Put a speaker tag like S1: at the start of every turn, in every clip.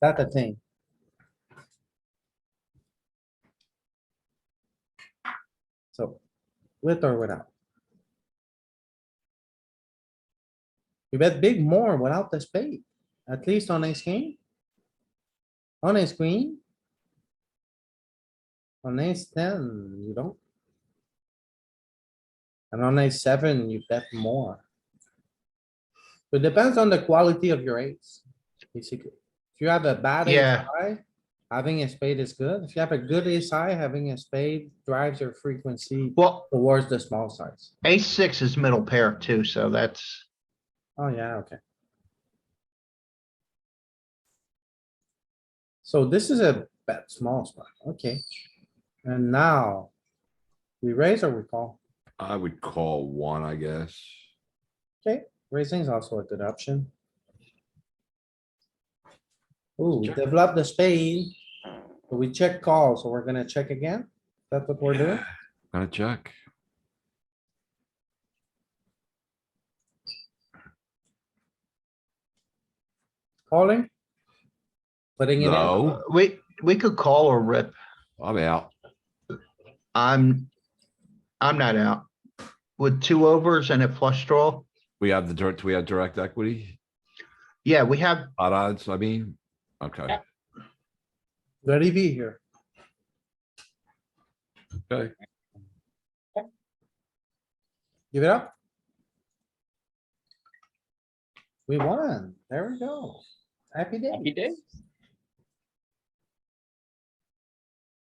S1: That a thing. So, with or without? You bet big more without the spade, at least on a screen. On a screen. On ace ten, you don't. And on ace seven, you bet more. So It depends on the quality of your ace, basically. If you have a bad ace
S2: Yeah.
S1: high, having a spade is good. If you have a good ace high, having a spade drives your frequency
S2: Well,
S1: towards the small size.
S2: ace six is middle pair too, so that's,
S1: Oh, yeah, okay. So this is a bet small spot, okay. And now, we raise or we call?
S3: I would call one, I guess.
S1: Raising is also a good option. Ooh, we develop the spade. but We check call, so we're gonna check again. That's what we're doing.
S3: Gotta check.
S1: Calling? Putting it in.
S3: No,
S2: we, we could call or rip.
S3: I'm out.
S2: I'm, I'm not out. With two overs and a flush draw,
S3: We have the direct, we have direct equity,
S2: yeah, we have,
S3: odd odds, I mean, okay,
S1: Good EV here.
S3: okay.
S1: Give it up. We won. There we go. Happy day.
S4: Happy days.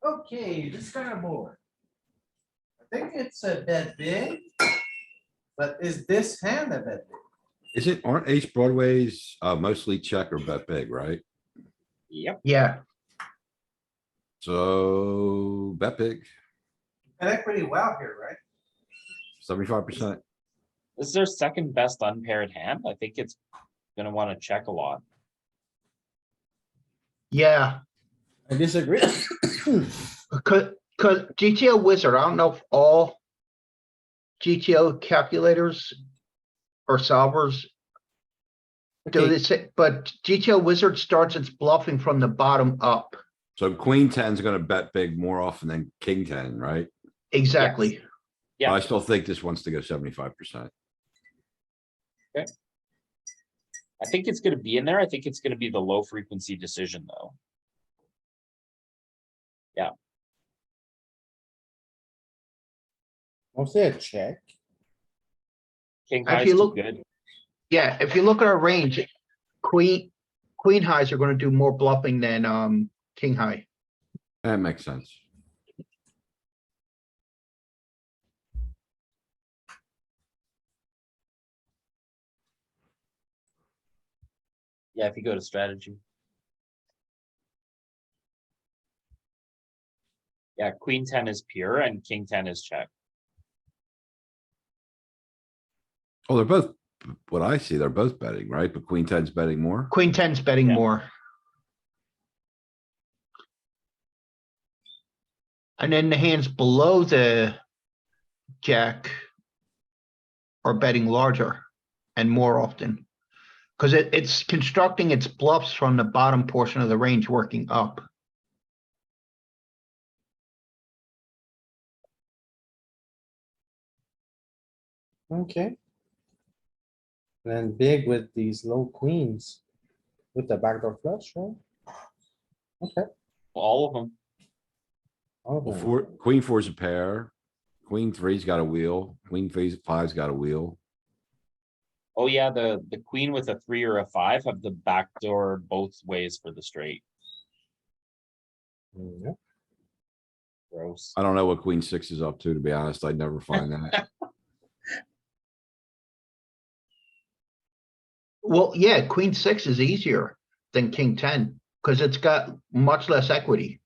S1: Okay, this kind of board. I think it's a bit big. But is this hand a bit? big?
S3: Is it, aren't ace broadways, uh, mostly check or bet big, right?
S4: Yep,
S2: yeah,
S3: So bet big,
S1: I think pretty well here, right?
S3: seventy-five percent.
S4: this is their second best unpaired hand. I think it's gonna wanna check a lot.
S2: yeah.
S1: I disagree. Hmm.
S2: Cause, cause GTO wizard, I don't know if all GTO calculators or solvers do
S1: Okay.
S2: this, but GTO wizard starts its bluffing from the bottom up.
S3: So queen ten's gonna bet big more often than king ten, right?
S2: Exactly.
S3: But I
S4: Yeah.
S3: still think this wants to go seventy-five percent.
S4: I think it's gonna be in there. I think it's gonna be the low frequency decision though.
S1: Mostly a check.
S4: King
S2: If
S4: high's
S2: you
S4: too
S2: look-
S4: good.
S2: Yeah, if you look at our range, queen, queen highs are gonna do more bluffing than, um, king high.
S3: That makes sense.
S4: Yeah, if you go to strategy. Yeah, queen ten is pure and king ten is check.
S3: Oh, they're both, what I see, they're both betting, right? But queen ten's betting more.
S2: Queen ten's betting
S4: Yeah.
S2: more. And then the hands below the jack are betting larger and more often. Cause it, it's constructing its bluffs from the bottom portion of the range working up.
S1: Okay. Then big with these low queens. With the backdoor flush, right? Okay.
S4: All of them.
S1: all of
S3: Well,
S1: them.
S3: four, queen four's a pair, queen three's got a wheel, queen three's five's got a wheel.
S4: Oh yeah, the, the queen with a three or a five have the backdoor both ways for the straight.
S1: Yeah.
S4: Gross.
S3: I don't know what queen six is up to, to be honest. I'd never find that.
S2: Well, yeah, queen six is easier than king ten, cause it's got much less equity.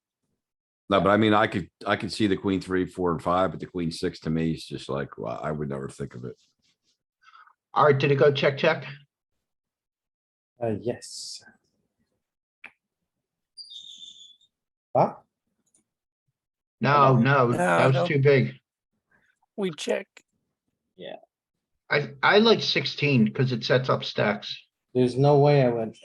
S3: No, but I mean, I could, I could see the queen three, four and five, but the queen six to me is just like, well, I would never think of it.
S2: Alright, did it go check, check?
S1: Uh, yes. Ah,
S2: No, no,
S5: No,
S2: that
S5: no.
S2: was too big.
S5: We check.
S2: I, I like sixteen because it sets up stacks.
S1: there's no way I would